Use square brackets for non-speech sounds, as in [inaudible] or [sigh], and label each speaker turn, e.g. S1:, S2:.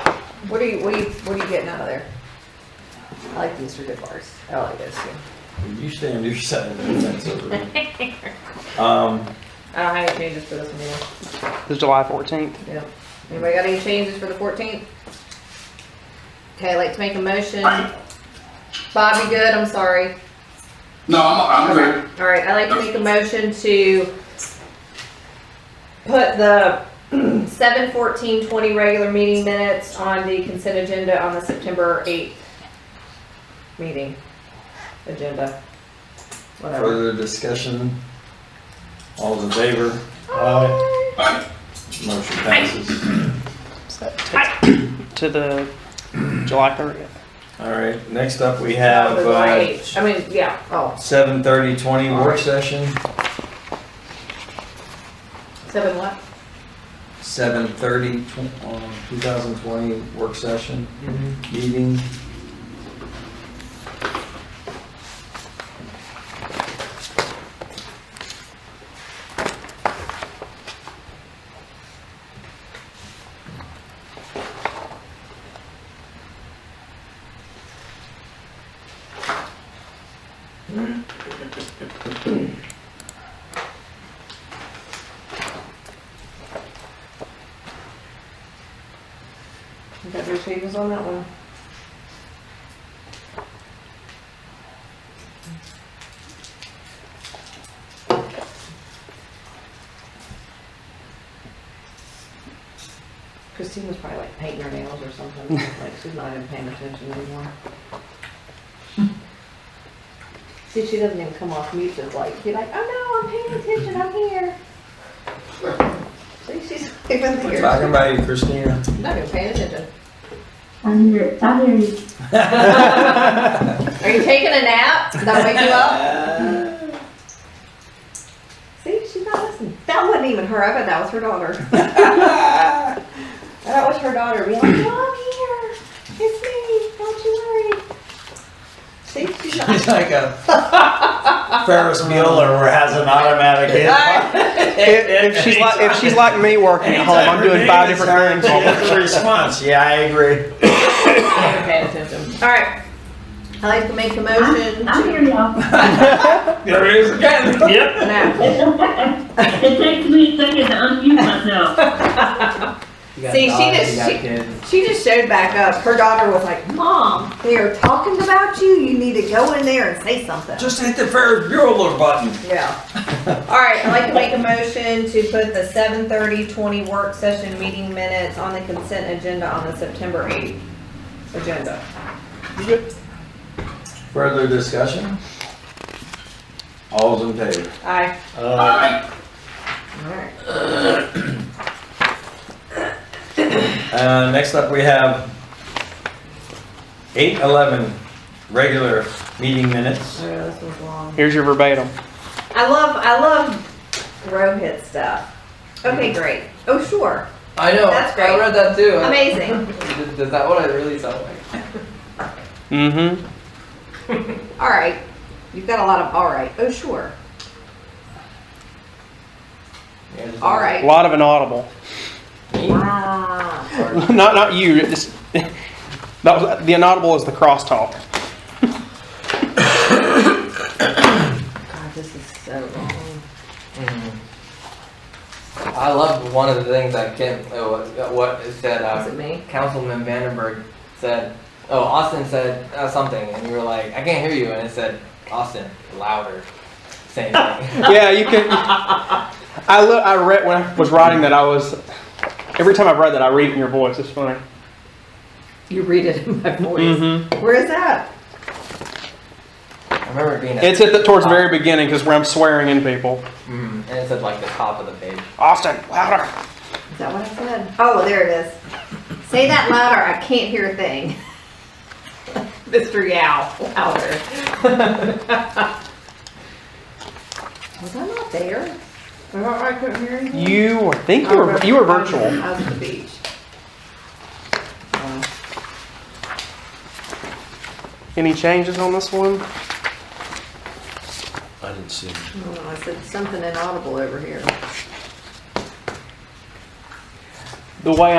S1: do you, what do you, what are you getting out of there? I like these for good bars. I like this too.
S2: You stay on your side of the fence over there. Um,
S1: I don't have any changes for this one either.
S3: It's July 14th.
S1: Yeah. Anybody got any changes for the fourteenth? Okay, I'd like to make a motion. Bobby Good, I'm sorry.
S4: No, I'm, I'm good.
S1: All right, I'd like to make a motion to put the seven fourteen twenty regular meeting minutes on the consent agenda on the September eighth meeting agenda. Whatever.
S2: further discussion? All in favor?
S4: Aye.
S2: Motion passes.
S3: So that takes to the July 30th.
S2: All right, next up we have,
S1: That was my
S2: uh,
S1: H. I mean, yeah, oh,
S2: seven thirty twenty work session,
S1: seven what?
S2: seven thirty, um, two thousand twenty work session
S3: Mm-hmm.
S2: meeting.
S1: You got your changes on that one? Christine was probably like painting her nails or something, like she's not even paying attention anymore. See, she doesn't even come off mute, just like, you're like, oh no, I'm paying attention, I'm here. See, she's [laughs] not even here.
S2: Talking about you, Christina.
S1: Not even paying attention.
S5: I'm here, I'm here.
S1: [laughs] Are you taking a nap? Did that wake you up? [laughs] See, she's not listening. That wasn't even her. I bet that was her daughter. that was her daughter being like, Mom, here. It's me. Don't you worry. See, she's not.
S2: [laughs] He's like a Ferris Bueller where has an automatic hit.
S3: If, if she's like if she's like me working at home, I'm doing five different
S2: She
S3: things.
S2: has a response. Yeah, I agree.
S1: All right. I like to make a motion
S5: I'm, I'm
S1: to [laughs]
S5: here, y'all. [laughs]
S2: There is again. Yep.
S1: nap.
S5: It's okay. It takes me a second to unmute myself.
S1: See, she just- she- She just showed back up. Her daughter was like, Mom, they are talking about you. You need to go in there and say something.
S2: Just hit the Ferris Bueller button.
S1: Yeah. All right, I'd like to make a motion to put the seven thirty twenty work session meeting minutes on the consent agenda on the September eighth agenda.
S2: Further discussion? All's in favor?
S1: Aye.
S4: Aye.
S1: All right.
S2: Uh, next up, we have eight eleven regular meeting minutes.
S1: I know this was long.
S3: Here's your verbatim.
S1: I love, I love Rohit stuff. Okay, great. Oh, sure.
S6: I know.
S1: That's great.
S6: I read that too.
S1: Amazing.
S6: Is, is that what I really sound like?
S3: Mm-hmm.
S1: All right. You've got a lot of all right. Oh, sure. All
S3: A
S1: right.
S3: lot of inaudible. [laughs]
S1: Wow.
S3: not not you. Just, [laughs] that was the inaudible is the crosstalk.
S1: God, this is so long.
S6: Mm-hmm. I loved one of the things I can't. Uh, what- what it said?
S1: Is it
S6: Uh,
S1: me?
S6: Councilman Vandenberg said, "Oh, Austin said uh, something," and you were like, "I can't hear you," and it said, "Austin, louder." Same
S1: [laughs]
S6: thing.
S3: Yeah, you can. I look. I read when I was writing that. I was every time I read that, I read it in your voice. It's funny.
S1: You read it in my voice.
S3: Mm-hmm.
S1: [laughs] Where is that?
S6: I remember it being. At,
S3: It's at the towards the very beginning because where I'm swearing in people.
S6: mm, and it said like the top of the page.
S3: Austin, louder.
S1: Is that what I said? Oh, there it is. Say that louder, I can't hear a thing. [laughs] Mr. Yao, louder. [laughs] Was I not there? I I couldn't hear anything?
S3: You were, I think you were, you were virtual.
S1: I was at the beach.
S3: Any changes on this one?
S7: I didn't see
S1: I
S7: him.
S1: don't know, I said something inaudible over here.
S3: The way